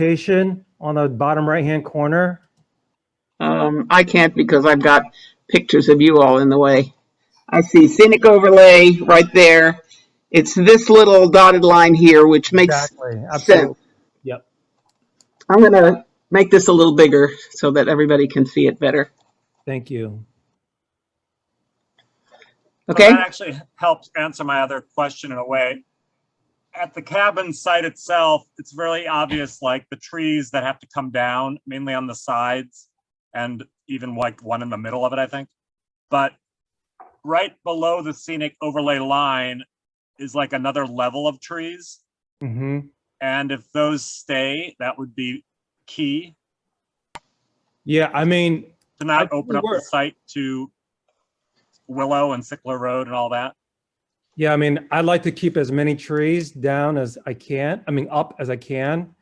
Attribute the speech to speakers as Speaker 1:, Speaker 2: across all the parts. Speaker 1: notation on the bottom right-hand corner?
Speaker 2: Um, I can't because I've got pictures of you all in the way. I see scenic overlay right there. It's this little dotted line here, which makes,
Speaker 1: Exactly. Absolutely. Yep.
Speaker 2: I'm gonna make this a little bigger so that everybody can see it better.
Speaker 1: Thank you.
Speaker 3: Well,
Speaker 2: Okay?
Speaker 3: That actually helps answer my other question in a way. At the cabin site itself, it's really obvious, like the trees that have to come down, mainly on the sides and even like one in the middle of it, I think. But right below the scenic overlay line is like another level of trees.
Speaker 1: hmm
Speaker 3: And if those stay, that would be key
Speaker 1: Yeah, I mean,
Speaker 3: to
Speaker 1: I think
Speaker 3: not open
Speaker 1: we
Speaker 3: up
Speaker 1: were.
Speaker 3: the site to Willow and Sickler Road and all that.
Speaker 1: yeah, I mean, I'd like to keep as many trees down as I can, I mean, up as I can.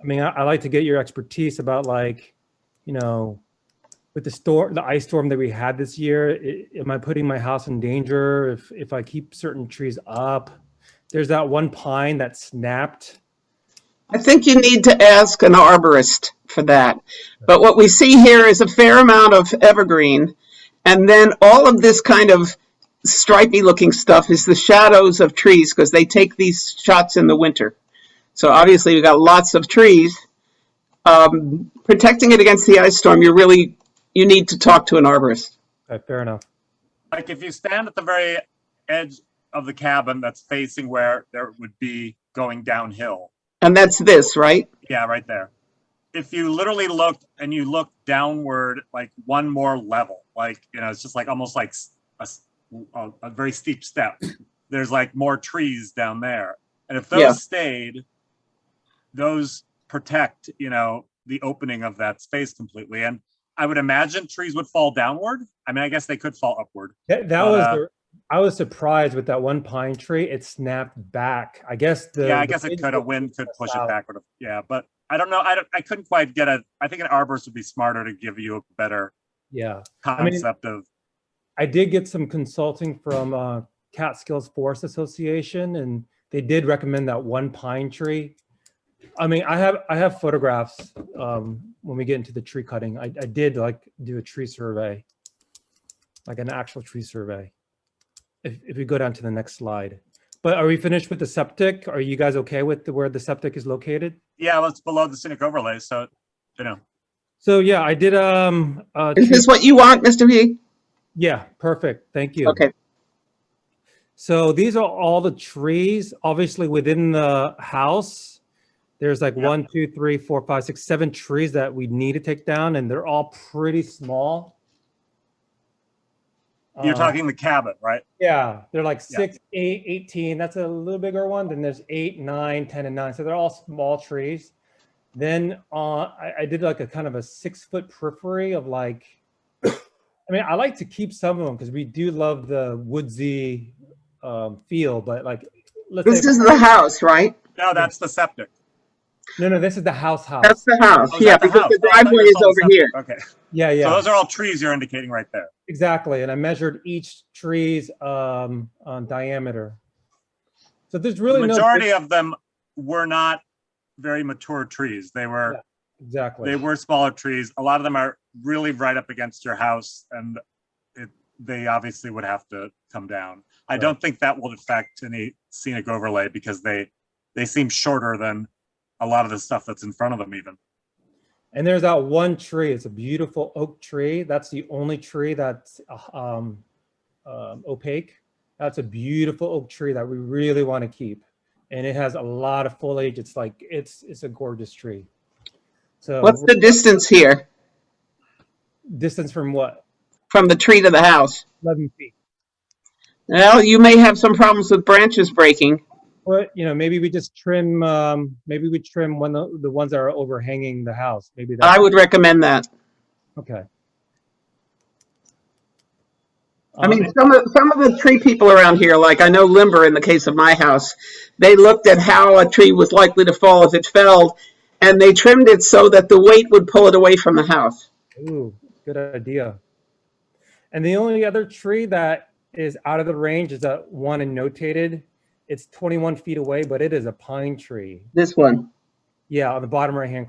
Speaker 1: I mean, I, I like to get your expertise about like, you know, with the storm, the ice storm that we had this year, i- am I putting my house in danger if, if I keep certain trees up? There's that one pine that snapped.
Speaker 2: I think you need to ask an arborist for that. But what we see here is a fair amount of evergreen. And then all of this kind of stripy looking stuff is the shadows of trees because they take these shots in the winter. So obviously we've got lots of trees. Um, protecting it against the ice storm, you really, you need to talk to an arborist.
Speaker 1: Okay, uh, fair enough.
Speaker 3: like if you stand at the very edge of the cabin that's facing where there would be going downhill
Speaker 2: And that's this, right?
Speaker 3: yeah right there if you literally looked and you look downward like one more level like you know it's just like almost like s- a, s- a- a very steep step there's like more trees down there and if those
Speaker 2: Yeah.
Speaker 3: stayed those protect you know the opening of that space completely and i would imagine trees would fall downward i mean i guess they could fall upward
Speaker 1: That, that
Speaker 3: But,
Speaker 1: was,
Speaker 3: uh,
Speaker 1: the- I was surprised with that one pine tree. It snapped back. I guess the.
Speaker 3: Yeah,
Speaker 1: the
Speaker 3: I guess it
Speaker 1: wind
Speaker 3: could, a
Speaker 1: was
Speaker 3: wind could
Speaker 1: us
Speaker 3: push
Speaker 1: out.
Speaker 3: it backward, yeah, but I don't know, I don't, I couldn't quite get a, I think an arborist would be smarter to give you a better
Speaker 1: Yeah, mean-
Speaker 3: concept of,
Speaker 1: I did get some consulting from uh, Catskills Forest Association, and they did recommend that one pine tree. I mean, I have I have photographs um, when we get into the tree cutting. I, I did like do a tree survey, like an actual tree survey. If, if we go down to the next slide, but are we finished with the septic? Are you guys okay with the, where the septic is located?
Speaker 3: yeah, well, it's below the scenic overlay, so, you know,
Speaker 1: So yeah, I did. Um, uh,
Speaker 2: Is
Speaker 1: tree-
Speaker 2: this what you want, Mr. V?
Speaker 1: yeah, perfect. Thank you.
Speaker 2: Okay,
Speaker 1: So these are all the trees, obviously within the house. There's like
Speaker 3: Yep.
Speaker 1: one, two, three, four, five, six, seven trees that we need to take down and they're all pretty small.
Speaker 3: you're
Speaker 2: Uh-huh.
Speaker 1: Uh,
Speaker 3: talking the cabin, right?
Speaker 1: Yeah, they're like
Speaker 3: Yeah.
Speaker 1: six, eight, 18. That's a little bigger one. Then there's eight, nine, 10 and nine. So they're all small trees. Then uh, I, I did like a kind of a six foot periphery of like, I mean, I like to keep some of them because we do love the woodsy um, feel, but like, let's
Speaker 2: this
Speaker 1: say,
Speaker 2: is the house, right?
Speaker 3: No, that's the septic.
Speaker 1: no, no, this is the house
Speaker 2: That's
Speaker 1: house.
Speaker 2: the house,
Speaker 3: Oh, is
Speaker 2: yeah,
Speaker 3: that the
Speaker 2: because the
Speaker 3: house? Oh, I thought you
Speaker 2: driveway
Speaker 3: were
Speaker 2: is
Speaker 3: still
Speaker 2: over
Speaker 3: on
Speaker 2: here.
Speaker 3: septic. Okay,
Speaker 1: Yeah,
Speaker 3: so
Speaker 1: yeah,
Speaker 3: those are all trees you're indicating right there.
Speaker 1: exactly. And I measured each tree's um, uh, diameter. So there's
Speaker 3: The
Speaker 1: really no.
Speaker 3: majority of them were not very mature trees, they were,
Speaker 1: Exactly.
Speaker 3: they were smaller trees, a lot of them are really right up against your house, and it, they obviously would have to come down. I
Speaker 1: Right.
Speaker 3: don't think that will affect any scenic overlay because they, they seem shorter than a lot of the stuff that's in front of them even.
Speaker 1: And there's that one tree. It's a beautiful oak tree. That's the only tree that's uh, um, um, opaque. That's a beautiful oak tree that we really want to keep, and it has a lot of foliage. It's like it's it's a gorgeous tree. So
Speaker 2: What's the distance here
Speaker 1: distance from what?
Speaker 2: from the tree to the house?
Speaker 1: Eleven feet.
Speaker 2: Well, you may have some problems with branches breaking.
Speaker 1: But you know, maybe we just trim. Um, maybe we trim one of the ones that are overhanging the house. Maybe that.
Speaker 2: I would recommend that.
Speaker 1: okay.
Speaker 2: I
Speaker 1: Um,
Speaker 2: mean, some of, some of the tree people around here, like I know Limber in the case of my house, they looked at how a tree was likely to fall if it fell, and they trimmed it so that the weight would pull it away from the house.
Speaker 1: Ooh, good idea. And the only other tree that is out of the range is that one and notated. It's 21 feet away, but it is a pine tree.
Speaker 2: This one.
Speaker 1: Yeah, on the bottom right-hand